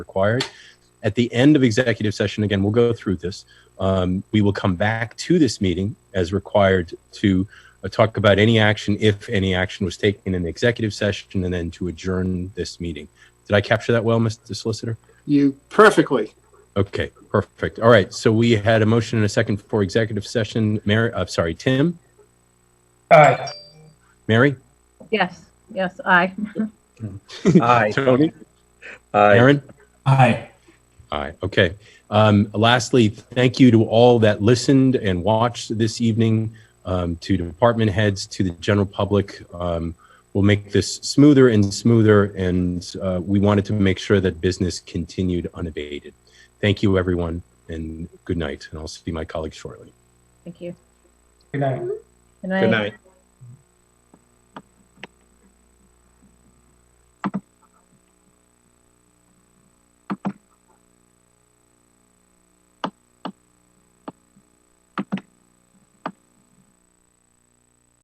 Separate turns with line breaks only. required. At the end of executive session, again, we'll go through this. Um, we will come back to this meeting as required to uh, talk about any action, if any action was taken in the executive session, and then to adjourn this meeting. Did I capture that well, Mr. Solicitor?
You perfectly.
Okay, perfect. All right. So we had a motion and a second for executive session. Mary, uh, sorry, Tim,
Aye.
Mary,
Yes, yes, aye.
Aye.
Tony,
Aye.
Aaron.
Aye.
Aye. Okay. Um, lastly, thank you to all that listened and watched this evening, um, to department heads, to the general public. Um, we'll make this smoother and smoother, and uh, we wanted to make sure that business continued unabated. Thank you, everyone, and good night. And I'll see my colleagues shortly.
Thank you.
Good night.
Good
Good night.